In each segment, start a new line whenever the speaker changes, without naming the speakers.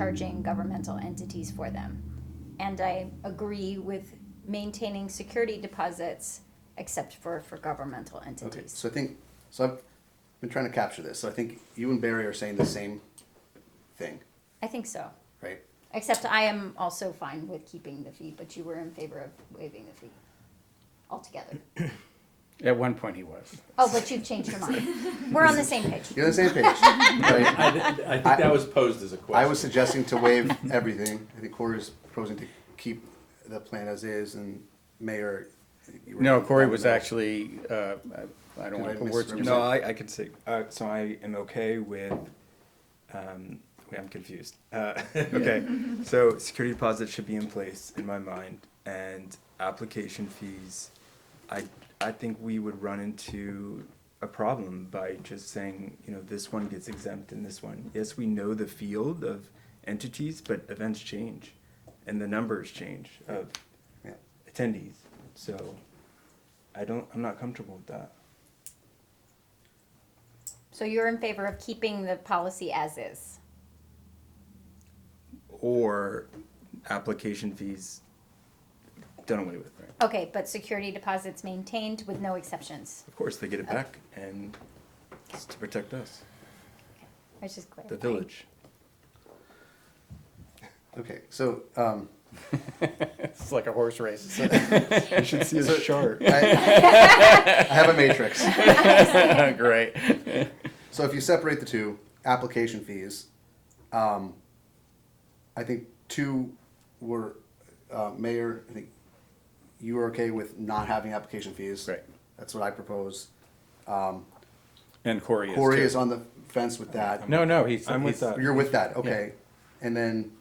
charging governmental entities for them. And I agree with maintaining security deposits except for, for governmental
Okay,
entities.
so I think, so I've been trying to capture this, so I think you and Barry are saying the same thing,
I think so.
right?
Except I am also fine with keeping the fee, but you were in favor of waiving the fee altogether.
At one point he was.
Oh, but you've changed your mind. We're on the same page.
You're on the same page, right?
I, th- I think that was posed as a question.
I was suggesting to waive everything, I think Corey is proposing to keep the plan as is, and Mayor. you were-
No, Corey was actually, uh, I- I
Did
don't want
I
to put words in
misrepresent?
your
No,
mouth.
I, I could see. Uh, so I am okay with. Um, wait, I'm confused. Uh, okay, so security deposits should be in place in my mind, and application fees. I I think we would run into a problem by just saying you know this one gets exempt and this one. Yes, we know the field of entities, but events change, and the numbers change of
Yeah.
attendees. So I don't. I'm not comfortable with that.
So you're in favor of keeping the policy as is?
or application fees done away with.
Okay, but security deposits maintained with no exceptions.
Of course, they get it back, and it's to protect us,
I was just clear.
the village.
Okay, so, um,
It's like a horse race.
You should see a chart.
I, I have a matrix.
Great.
So if you separate the two, application fees, um, I think two were, uh, mayor, I think you were okay with not having application fees.
Right.
That's what I propose.
And Corey is
Corey
too.
is on the fence with that.
No, no, he's.
I'm with
he's-
that.
You're with that, okay. And then,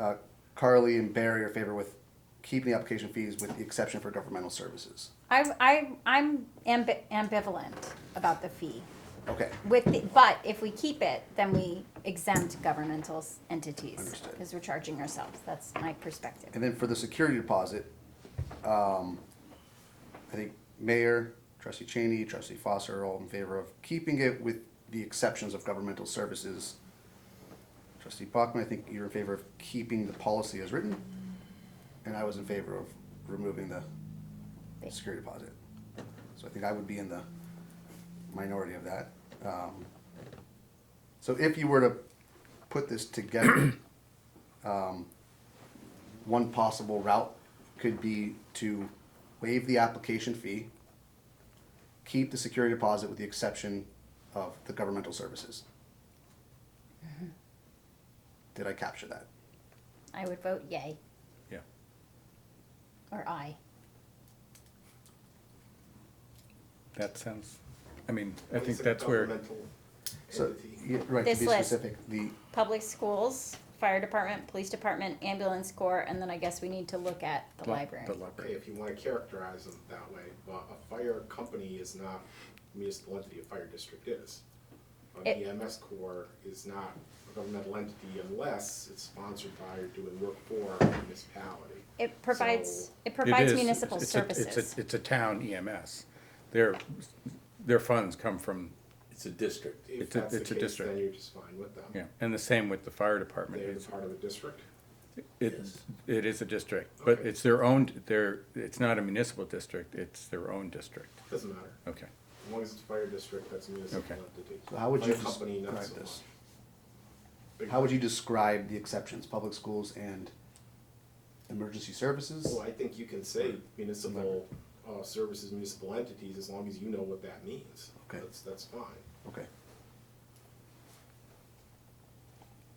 uh, Carly and Barry are favor with keeping the application fees with the exception for governmental services.
I, I, I'm ambi- ambivalent about the fee.
Okay,
With, the- but if we keep it, then we exempt governmental s- entities.
Understood.
Because we're charging ourselves. That's my perspective.
and then for the security deposit, um, I think mayor, trustee Cheney, trustee Foster are all in favor of keeping it with the exceptions of governmental services. Trustee Bachman, I think you're in favor of keeping the policy as written, and I was in favor of removing the security deposit. So I think I would be in the minority of that. Um, So if you were to put this together, um, one possible route could be to waive the application fee, keep the security deposit with the exception of the governmental services.
Mm-hmm.
Did I capture that?
I would vote yay
Yeah.
or aye.
That sounds, I mean, I think that's where,
So, yeah, right, to
This
be
list.
specific, the,
Public schools, fire department, police department, ambulance corps, and then I guess we need to look at the library.
the
Okay,
library.
if you wanna characterize them that way, but a fire company is not a municipal entity, a fire district is. An
It-
EMS corps is not a governmental entity unless it's sponsored by or doing work for a municipality.
It provides,
So-
it
It
provides
is-
municipal
it's a-
services.
It's a, it's a town EMS. Their, their funds come from,
It's a district.
If
It's a-
that's the
it's a
case,
district.
then you're just fine with them.
yeah, and the same with the fire department.
They're
It's-
part of the district.
It, it is a district, but
Okay.
it's their own, their, it's not a municipal district, it's their own district.
Doesn't matter.
Okay.
As long as it's a fire district, that's a municipal
Okay.
entity.
So how would you
Fire company, not
describe
so
this?
much.
how would you describe the exceptions, public schools and emergency services?
Well, I think you can say municipal, uh, services, municipal entities, as long as you know what that means.
Okay.
That's, that's fine.
Okay,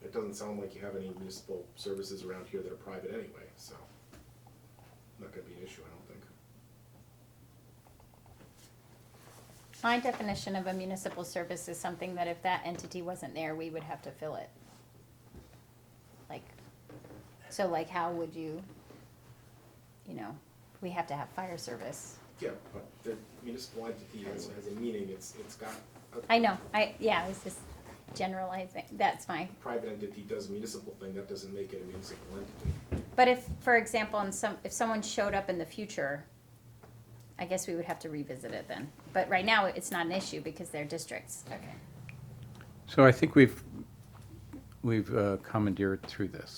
It doesn't sound like you have any municipal services around here that are private anyway, so. Not gonna be an issue, I don't think.
My definition of a municipal service is something that if that entity wasn't there, we would have to fill it. Like, so like, how would you, you know, we have to have fire service.
Yeah, but the municipal entity has, has a meaning, it's, it's got, a
I know, I, yeah, I was just generalizing, that's my,
private entity does a municipal thing, that doesn't make it a municipal entity.
but if, for example, in some, if someone showed up in the future, I guess we would have to revisit it then. But right now, it's not an issue because they're districts. Okay.
So I think we've, we've uh, commandeered through this.